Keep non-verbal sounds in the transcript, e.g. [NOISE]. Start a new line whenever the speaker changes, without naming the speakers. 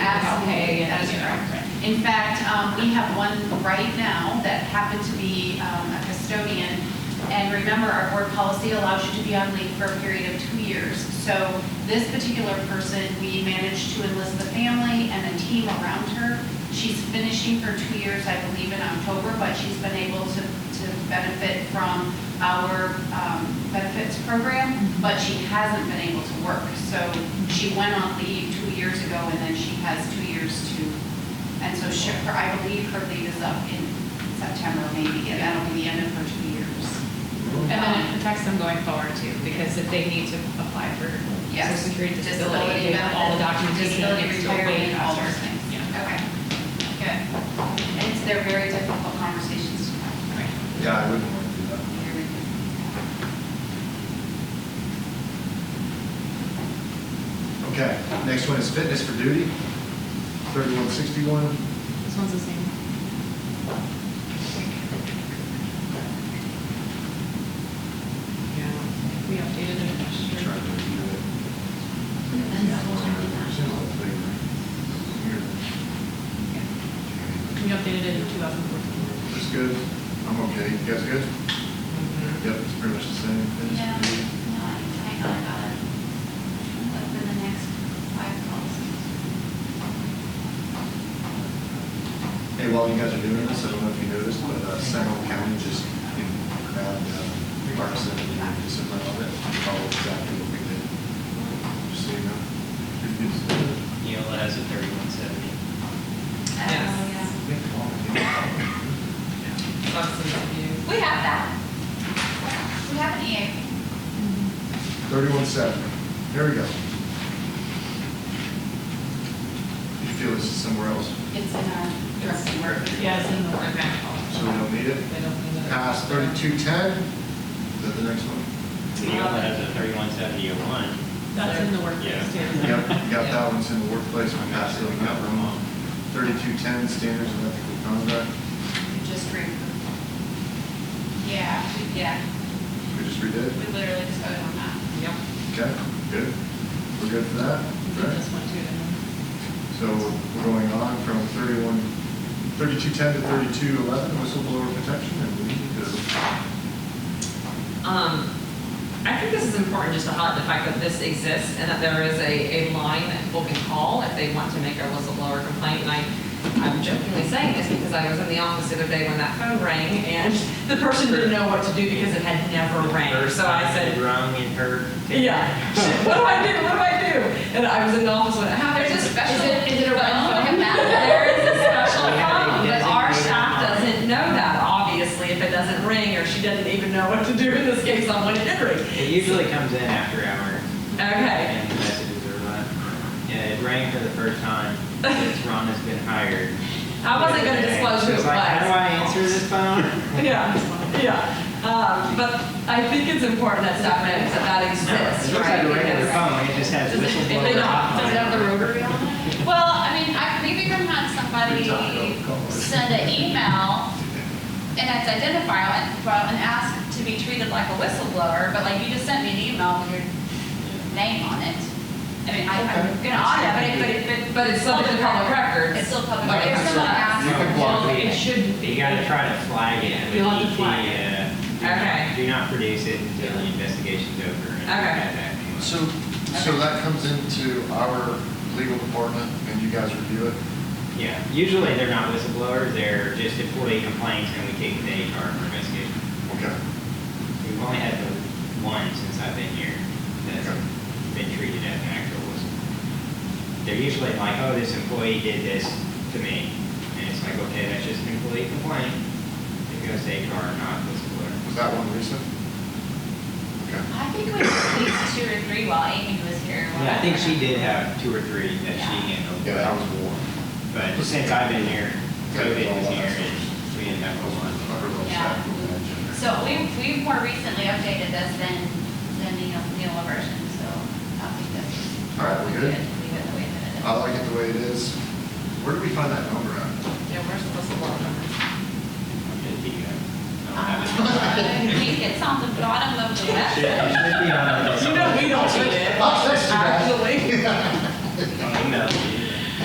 In fact, um, we have one right now that happened to be um, a custodian. And remember, our board policy allows you to be on leave for a period of two years. So this particular person, we managed to enlist the family and a team around her. She's finishing her two years, I believe, in October, but she's been able to, to benefit from our um, benefits program, but she hasn't been able to work. So she went on leave two years ago, and then she has two years to and so she, her- I believe her leave is up in September maybe, and that'll be the end of her two years.
And then it protects them going forward too, because if they need to apply for social
Yes.
security disability, they have all the documentation.
Disability
it's still way
retirement, all those
faster.
things.
Yeah.
Okay, good. And it's, they're very difficult conversations to have.
Right.
Yeah, I wouldn't want to do that. Okay, next one is fitness for duty, thirty-one sixty-one.
This one's the same. Yeah, we updated it. last year. We updated it in 2014.
It's good, I'm okay, you guys good? Yep, it's pretty much the same. Fitness for
Yeah,
duty.
no, I, I got it, got it. Look for the next five calls.
Hey, while you guys are doing this, I don't know if you noticed, but uh, Seminole County just grabbed Parson and December of it, followed exactly what we did. Just so you know. Pretty good stuff.
Neola has a thirty-one seventy.
Yes.
Oh, yeah.
Yeah.
We have that. We have
E
an EAP.
Thirty-one seven, there we go. You feel this is somewhere else,
It's in our dressing room.
Yeah, it's in the work.
so we don't need it?
They don't need it.
Pass thirty-two ten, is that the next one?
Neola has a thirty-one seventy-one.
That's in the workplace
Yeah.
too.
Yep, you got that one's in the workplace, we passed it,
Absolutely,
we got
cover
one.
them all.
Thirty-two ten, standards of ethical conduct,
You just read. Yeah, we- yeah,
we just redid
we
it,
literally just voted on that.
Yep.
okay, good, we're good for that,
We did
right?
this one too, didn't we?
So we're going on from thirty-one, thirty-two ten to thirty-two eleven, whistleblower protection, and we need to
Um, I think this is important just to highlight the fact that this exists and that there is a, a line that people can call if they want to make a whistleblower complaint. And I, I'm jokingly saying this because I was in the office the other day when that phone rang and the person didn't know what to do because it had never rang. So I said,
Wrong in her.
[LAUGHS] yeah, what do I do? What do I do? And I was in the office when it happened.
There's a special-
Is it- is it a
But-
phone? There is a [LAUGHS] special
We have a
phone, but our
designated
staff
phone.
doesn't know that, obviously, if it doesn't ring or she doesn't even know what to do in this case on when it did ring.
It usually comes in after hours
Okay.
and the messages are left. Yeah, it rang for the first time since Ron has been hired.
I wasn't gonna disclose who it
It's like, How do
was.
I answer this phone?
Yeah, yeah. Um, but I think it's important that staff knows that that exists,
It looks
right?
like a regular
Because-
phone, it just has
Does it- [LAUGHS] if they
whistleblower
don't-
hotline.
does it have the rotary on it?
Well, I mean, I, we've even had somebody send an email and it's identifiable and, well, and ask to be treated like a whistleblower, but like you just sent me an email with your name on it. I mean, I, I'm gonna audit, but it, but it, but.
But it's subject to public records.
It's still public. record.
Like,
If someone asks.
You can block
Well,
it.
It shouldn't be.
You gotta try to flag it with
You'll have to
EP,
flag it.
uh, do
Okay.
not- Do not produce it until the investigation's over. and
Okay.
have that anyway.
So, so that comes into our legal department and you guys review it?
Yeah, usually they're not whistleblowers, they're just employee complaints and we take it to HR for investigation.
Okay.
We've only had the one since I've been here that's
Okay.
been treated as an actual whistleblower. They're usually like, oh, this employee did this to me. And it's like, okay, that's just an employee complaint. It goes to HR, not whistleblower.
Was that one recent? Okay.
I think we did at least two or three while Amy was here.
Yeah, I think she did have two or three that she handled.
Yeah, that was war.
But since I've been here, COVID was here and we didn't have a lot.
I heard about that.
So we, we've more recently updated this than, than the Neola version, so I think that's.
All right, we're good?
We got the way that it is.
I like it the way it is. Where did we find that number at?
Yeah, we're supposed to block them.
It'd be, uh, I don't have it.
Um, [LAUGHS] Uh, I think It's on the bottom of the
[LAUGHS]
It
website.
should be on the